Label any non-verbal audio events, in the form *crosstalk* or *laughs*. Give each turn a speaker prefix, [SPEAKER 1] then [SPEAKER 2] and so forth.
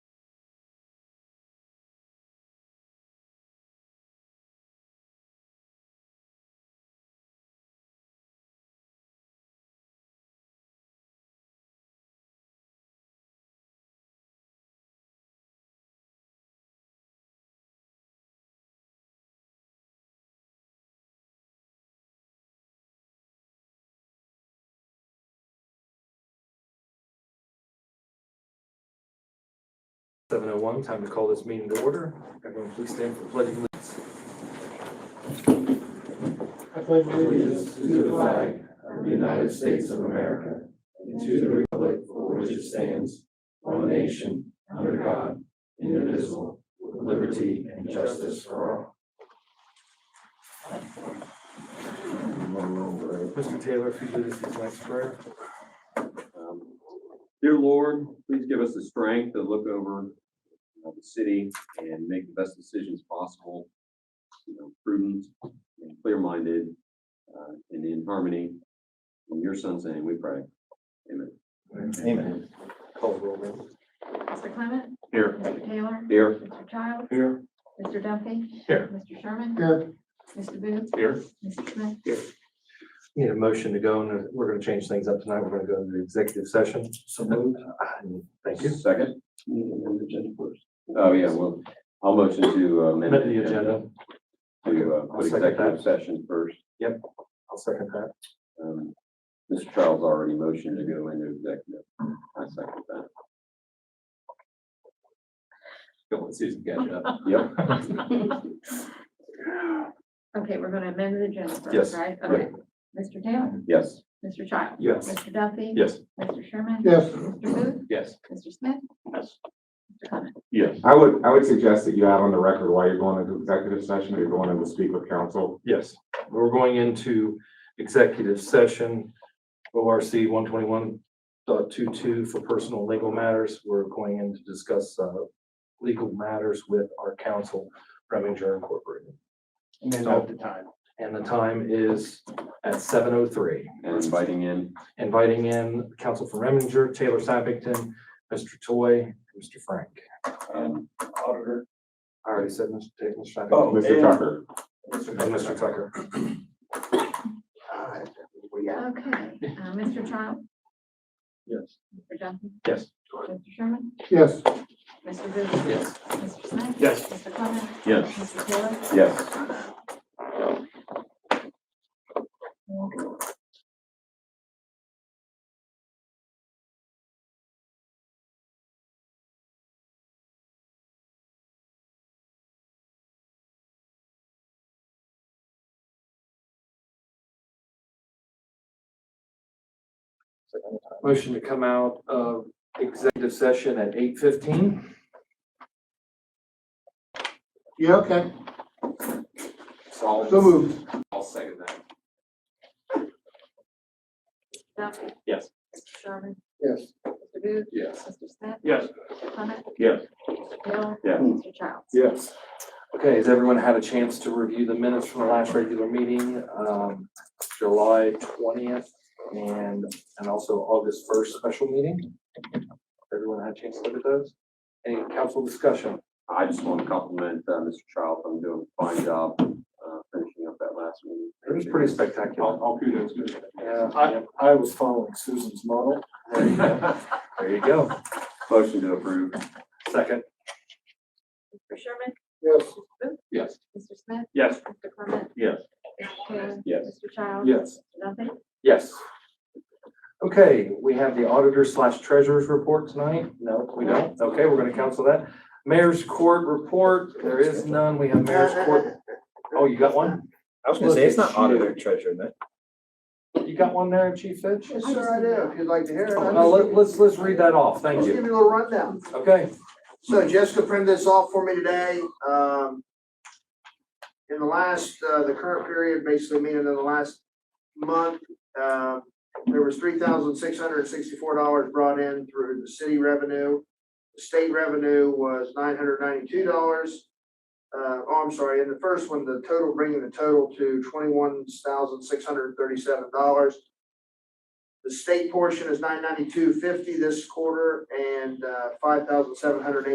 [SPEAKER 1] Seven oh one, time to call this meeting to order. Everyone please stand for the pledge of allegiance.
[SPEAKER 2] I pledge
[SPEAKER 3] allegiance to the flag of the United States of America and to the republic for which it stands, one nation, under God, indivisible, with liberty and justice for all.
[SPEAKER 1] Mr. Taylor, if you lead us in tonight's prayer.
[SPEAKER 4] Um, Dear Lord, please give us the strength to look over uh, the city and make the best decisions possible. You know, prudent and clear-minded uh, and in harmony. In your son's name, we pray. Amen.
[SPEAKER 3] Amen.
[SPEAKER 1] Call the roll, ma'am.
[SPEAKER 5] Mr. Clement?
[SPEAKER 4] Here.
[SPEAKER 5] Mr. Taylor?
[SPEAKER 4] Dear.
[SPEAKER 5] Mr. Childs?
[SPEAKER 1] Here.
[SPEAKER 5] Mr. Duffy?
[SPEAKER 1] Here.
[SPEAKER 5] Mr. Sherman?
[SPEAKER 2] Here.
[SPEAKER 5] Mr. Booth?
[SPEAKER 1] Here.
[SPEAKER 5] Mr. Smith?
[SPEAKER 1] Need a motion to go and we're gonna change things up tonight. We're gonna go into executive session.
[SPEAKER 3] So
[SPEAKER 1] Thank you.
[SPEAKER 4] Second? Oh, yeah, well, I'll motion to uh, amend
[SPEAKER 1] Amend the agenda.
[SPEAKER 4] To uh,
[SPEAKER 1] I'll
[SPEAKER 4] put
[SPEAKER 1] second
[SPEAKER 4] executive
[SPEAKER 1] that.
[SPEAKER 4] session first.
[SPEAKER 1] I'll second that.
[SPEAKER 4] Um, Mr. Charles already motioned to go into executive. I second that.
[SPEAKER 3] Go on, Susan, catch up.
[SPEAKER 4] Yep.
[SPEAKER 5] Okay, we're gonna amend the agenda first,
[SPEAKER 1] Yes.
[SPEAKER 5] right? Okay. Mr. Taylor?
[SPEAKER 4] Yes.
[SPEAKER 5] Mr. Childs?
[SPEAKER 1] Yes.
[SPEAKER 5] Mr. Duffy?
[SPEAKER 1] Yes.
[SPEAKER 5] Mr. Sherman?
[SPEAKER 2] Yes.
[SPEAKER 5] Mr. Booth?
[SPEAKER 3] Yes.
[SPEAKER 5] Mr. Smith?
[SPEAKER 3] Yes.
[SPEAKER 5] Mr. Clement?
[SPEAKER 3] Yes.
[SPEAKER 6] I would, I would suggest that you have on the record why you're going into executive session, or you're going in to speak with counsel.
[SPEAKER 1] Yes, we're going into executive session, ORC one twenty-one for personal legal matters. We're going in to discuss, uh, legal matters with our counsel, Reminger Incorporated.
[SPEAKER 2] And then
[SPEAKER 1] up
[SPEAKER 2] the time.
[SPEAKER 1] And the time is at seven oh three.
[SPEAKER 4] and inviting in.
[SPEAKER 1] Inviting in counsel from Reminger, Taylor Sappington, Mr. Toy, and Mr. Frank.
[SPEAKER 4] um,
[SPEAKER 3] Auditor.
[SPEAKER 1] I already said Mr. Taylor, Mr.
[SPEAKER 3] Oh,
[SPEAKER 1] Sappington.
[SPEAKER 6] Mr.
[SPEAKER 3] and-
[SPEAKER 6] Tucker,
[SPEAKER 1] And Mr. Oh, Tucker. All right, we got-
[SPEAKER 5] Okay, uh, Mr. Childs?
[SPEAKER 3] Yes.
[SPEAKER 5] Mr. Duffy?
[SPEAKER 1] Yes.
[SPEAKER 5] Mr. Sherman?
[SPEAKER 2] Yes.
[SPEAKER 5] Mr. Booth?
[SPEAKER 1] Yes.
[SPEAKER 5] Mr. Smith?
[SPEAKER 3] Yes.
[SPEAKER 5] Mr. Clement?
[SPEAKER 4] Yes.
[SPEAKER 5] Mr. Taylor?
[SPEAKER 4] Yes.
[SPEAKER 1] Motion to come out of executive session at eight fifteen.
[SPEAKER 2] Yeah, okay. So
[SPEAKER 3] So
[SPEAKER 2] moved.
[SPEAKER 3] I'll second that.
[SPEAKER 5] Duffy?
[SPEAKER 3] Yes.
[SPEAKER 5] Mr. Sherman?
[SPEAKER 2] Yes.
[SPEAKER 5] Mr. Booth?
[SPEAKER 3] Yes.
[SPEAKER 5] Mr. Smith?
[SPEAKER 3] Yes.
[SPEAKER 5] Mr. Clement?
[SPEAKER 3] Yes.
[SPEAKER 5] Mr. Taylor?
[SPEAKER 4] Yes.
[SPEAKER 5] Mr. Childs?
[SPEAKER 1] Yes. Okay, has everyone had a chance to review the minutes from the last regular meeting, um, July twentieth and, and also August first special meeting? Everyone had a chance to look at those? Any council discussion?
[SPEAKER 4] I just want to compliment uh, Mr. Child on doing a fine job uh, finishing up that last meeting.
[SPEAKER 1] It was
[SPEAKER 4] *laughs*
[SPEAKER 1] pretty spectacular.
[SPEAKER 3] I'll kudos.
[SPEAKER 1] Yeah,
[SPEAKER 2] I, I was following Susan's model.
[SPEAKER 1] there you go. There you go.
[SPEAKER 4] Motion to approve.
[SPEAKER 1] Second,
[SPEAKER 5] Mr. Sherman?
[SPEAKER 2] Yes.
[SPEAKER 3] Yes.
[SPEAKER 5] Mr. Smith?
[SPEAKER 3] Yes.
[SPEAKER 5] Mr. Clement?
[SPEAKER 3] Yes.
[SPEAKER 5] Mr. Taylor?
[SPEAKER 4] Yes.
[SPEAKER 5] Mr. Childs?
[SPEAKER 2] Yes.
[SPEAKER 5] Nothing?
[SPEAKER 1] yes. Okay, we have the auditor slash treasurer's report tonight. No, we don't. Okay, we're gonna cancel that. Mayor's court report, there is none. We have mayor's court. Oh, you got one?
[SPEAKER 7] I was gonna say, it's not auditor treasurer, that.
[SPEAKER 1] You got one there, Chief Fitch?
[SPEAKER 2] Sure I do, if you'd like to hear it. I'll
[SPEAKER 1] Now,
[SPEAKER 2] just
[SPEAKER 1] let,
[SPEAKER 2] give-
[SPEAKER 1] Oh, let's, let's read that off.
[SPEAKER 2] I'll
[SPEAKER 1] Thank
[SPEAKER 2] just
[SPEAKER 1] you.
[SPEAKER 2] give you a little rundown.
[SPEAKER 1] Okay.
[SPEAKER 2] So Jessica printed this off for me today. Um, in the last, uh, the current period, basically meaning in the last month, uh, there was three thousand six hundred and sixty-four dollars brought in through the city revenue. The State revenue was nine hundred ninety-two dollars. Uh, oh, I'm sorry, in the first one, the total, bringing the total to twenty-one thousand six hundred and thirty-seven dollars. The state portion is nine ninety-two fifty this quarter and, uh, five thousand seven hundred